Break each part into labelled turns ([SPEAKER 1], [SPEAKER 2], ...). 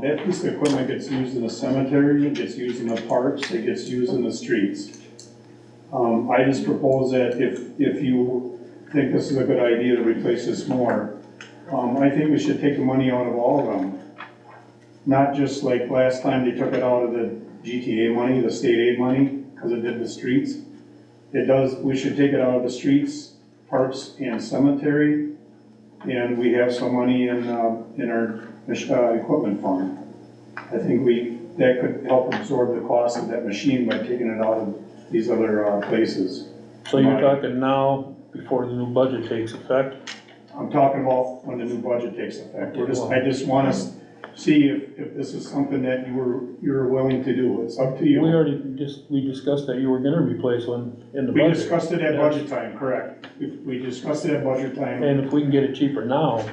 [SPEAKER 1] That piece of equipment gets used in the cemetery, it gets used in the parks, it gets used in the streets. Um, I just propose that if, if you think this is a good idea to replace this more, um, I think we should take the money out of all of them. Not just like last time they took it out of the GTA money, the state aid money, cause it did the streets. It does, we should take it out of the streets, parks and cemetery, and we have some money in, uh, in our mach- uh, equipment fund. I think we, that could help absorb the cost of that machine by taking it out of these other uh, places.
[SPEAKER 2] So you're talking now, before the new budget takes effect?
[SPEAKER 1] I'm talking about when the new budget takes effect. We're just, I just want to see if, if this is something that you were, you're willing to do. It's up to
[SPEAKER 2] We
[SPEAKER 1] you.
[SPEAKER 2] already just, we discussed that you were gonna replace one in the
[SPEAKER 1] We
[SPEAKER 2] budget.
[SPEAKER 1] discussed it at budget time, correct. We- We discussed it at budget time.
[SPEAKER 2] And if we can get it cheaper now,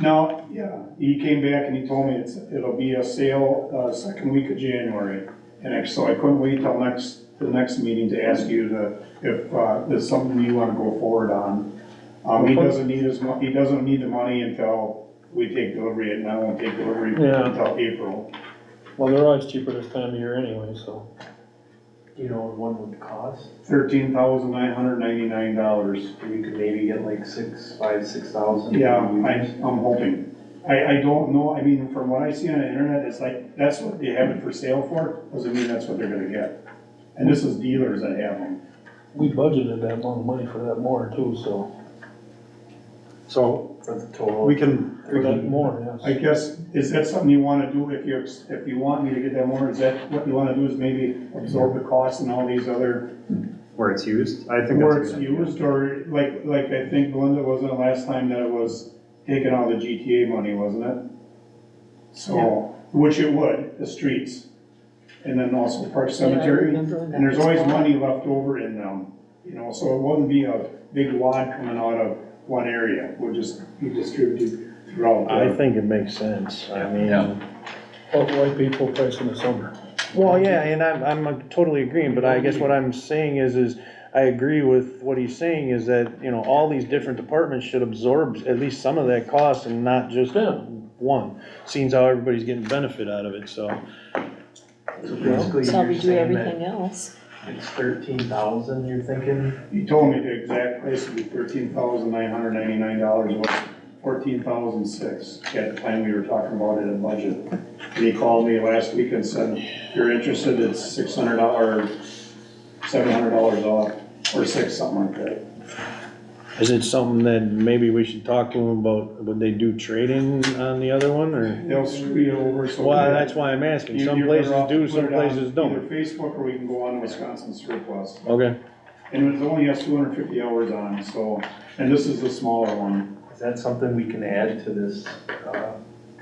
[SPEAKER 1] Now, yeah, he came back and he told me it's, it'll be a sale, uh, second week of January. And I- so I couldn't wait till next, the next meeting to ask you to, if, uh, there's something you wanna go forward on. Um, he doesn't need his mon, he doesn't need the money until we take delivery, and I won't take delivery
[SPEAKER 2] Yeah.
[SPEAKER 1] until April.
[SPEAKER 2] well, they're always cheaper this time of year anyway, so.
[SPEAKER 3] Do you know what one would cost?
[SPEAKER 1] Thirteen thousand nine hundred ninety-nine dollars.
[SPEAKER 3] You could maybe get like six, five, six thousand.
[SPEAKER 1] Yeah, I, I'm hoping. I, I don't know, I mean, from what I see on the internet, it's like, that's what they have it for sale for, doesn't mean that's what they're gonna get. And this is dealers that have them.
[SPEAKER 2] We budgeted that amount of money for that more too, so.
[SPEAKER 4] So
[SPEAKER 3] For the total.
[SPEAKER 4] we can,
[SPEAKER 2] For that more,
[SPEAKER 1] I
[SPEAKER 2] yes.
[SPEAKER 1] guess, is that something you wanna do if you, if you want me to get that more, is that what you wanna do is maybe absorb the cost and all these other
[SPEAKER 4] where it's used, I think that's.
[SPEAKER 1] where
[SPEAKER 4] a
[SPEAKER 1] it's
[SPEAKER 4] good idea.
[SPEAKER 1] used, or like, like I think Belinda wasn't the last time that it was taken out of the GTA money, wasn't it? So, which it would, the streets, and then also Park Cemetery. And there's always money left over in them, you know, so it wouldn't be a big wad coming out of one area, would just be distributed throughout.
[SPEAKER 5] I
[SPEAKER 1] the-
[SPEAKER 5] think it makes sense, I mean,
[SPEAKER 2] What white people price in the summer?
[SPEAKER 5] well, yeah, and I'm, I'm totally agreeing, but I guess what I'm saying is, is I agree with what he's saying is that, you know, all these different departments should absorb at least some of that cost and not just
[SPEAKER 2] Yeah.
[SPEAKER 5] one. Seems how everybody's getting benefit out of it, so.
[SPEAKER 3] So basically,
[SPEAKER 6] So
[SPEAKER 3] you're
[SPEAKER 6] we do
[SPEAKER 3] saying that
[SPEAKER 6] everything else.
[SPEAKER 3] it's thirteen thousand, you're thinking?
[SPEAKER 1] He told me the exact price would be thirteen thousand nine hundred ninety-nine dollars, was fourteen thousand six, at the time we were talking about it in budget. And he called me last week and said, if you're interested, it's six hundred dollars, seven hundred dollars off, or six, something like that.
[SPEAKER 5] Is it something that maybe we should talk to them about, would they do trading on the other one, or?
[SPEAKER 1] They'll screw you over, so.
[SPEAKER 5] Well, that's why I'm asking,
[SPEAKER 1] You-
[SPEAKER 5] some
[SPEAKER 1] you're better
[SPEAKER 5] places
[SPEAKER 1] off to
[SPEAKER 5] do,
[SPEAKER 1] put
[SPEAKER 5] some
[SPEAKER 1] it on
[SPEAKER 5] places don't.
[SPEAKER 1] Either Facebook or we can go on Wisconsin surplus.
[SPEAKER 5] Okay,
[SPEAKER 1] And it only has two hundred fifty hours on, so, and this is the smaller one.
[SPEAKER 3] Is that something we can add to this, uh,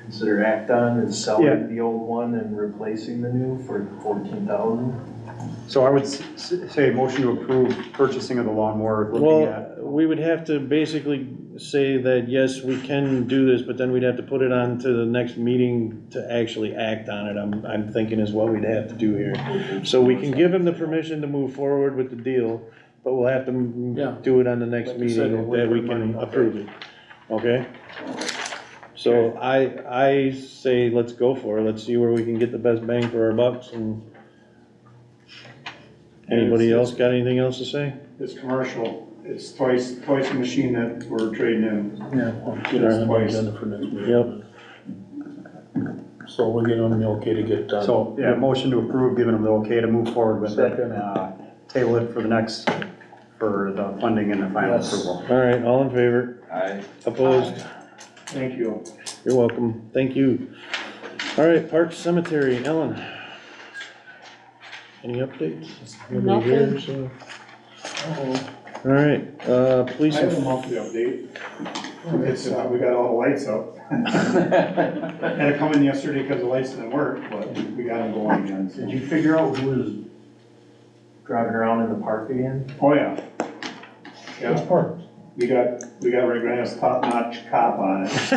[SPEAKER 3] consider act on and selling the old one and replacing the new for fourteen thousand?
[SPEAKER 4] So I would s- s- say motion to approve purchasing of the lawnmower, looking at,
[SPEAKER 2] uh,
[SPEAKER 5] well, we would have to basically say that, yes, we can do this, but then we'd have to put it on to the next meeting to actually act on it, I'm, I'm thinking is what we'd have to do here. So we can give them the permission to move forward with the deal, but we'll have to
[SPEAKER 2] Yeah.
[SPEAKER 5] m- do it on the next
[SPEAKER 2] Like you said,
[SPEAKER 5] meeting
[SPEAKER 2] we'll
[SPEAKER 5] that we
[SPEAKER 2] put money
[SPEAKER 5] can
[SPEAKER 2] out
[SPEAKER 5] approve it, okay? So I, I say, let's go for it, let's see where we can get the best bang for our bucks and. Anybody else got anything else to say?
[SPEAKER 1] It's commercial, it's twice, twice the machine that we're trading in.
[SPEAKER 2] Yeah. well, Get it on the agenda for next meeting. Yep. So we're getting on the okay to get done.
[SPEAKER 4] so, yeah, motion to approve, giving them the okay to move forward with it.
[SPEAKER 2] Second.
[SPEAKER 4] uh, Table it for the next, for the funding and the final
[SPEAKER 2] Yes.
[SPEAKER 4] approval.
[SPEAKER 5] All right, all in favor?
[SPEAKER 3] Aye.
[SPEAKER 5] Opposed?
[SPEAKER 1] Thank you.
[SPEAKER 5] You're welcome. Thank you. All right, Park Cemetery, Ellen. Any updates? Nobody here,
[SPEAKER 6] Nothing.
[SPEAKER 5] so- All right, uh,
[SPEAKER 1] I
[SPEAKER 5] police,
[SPEAKER 1] have a
[SPEAKER 5] and-
[SPEAKER 1] monthly update. It's, uh, we got all the lights up. Had to come in yesterday because the lights didn't work, but we got them going again.
[SPEAKER 3] Did
[SPEAKER 1] so-
[SPEAKER 3] you figure out who was driving around in the park again?
[SPEAKER 1] Oh, yeah.
[SPEAKER 2] That's
[SPEAKER 1] Yeah,
[SPEAKER 2] part.
[SPEAKER 1] we got, we got Ray Grant's top-notch cop on it.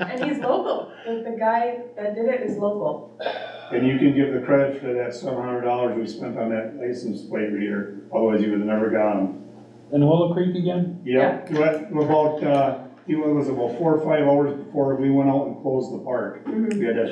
[SPEAKER 7] And he's local, like the guy that did it is local.
[SPEAKER 1] And you can give the credit for that seven hundred dollars we spent on that license plate reader, otherwise you would have never got them.
[SPEAKER 2] And Willow Creek again?
[SPEAKER 1] Yeah, what, about, uh, it was about four or five hours before we went out and closed the park. We had that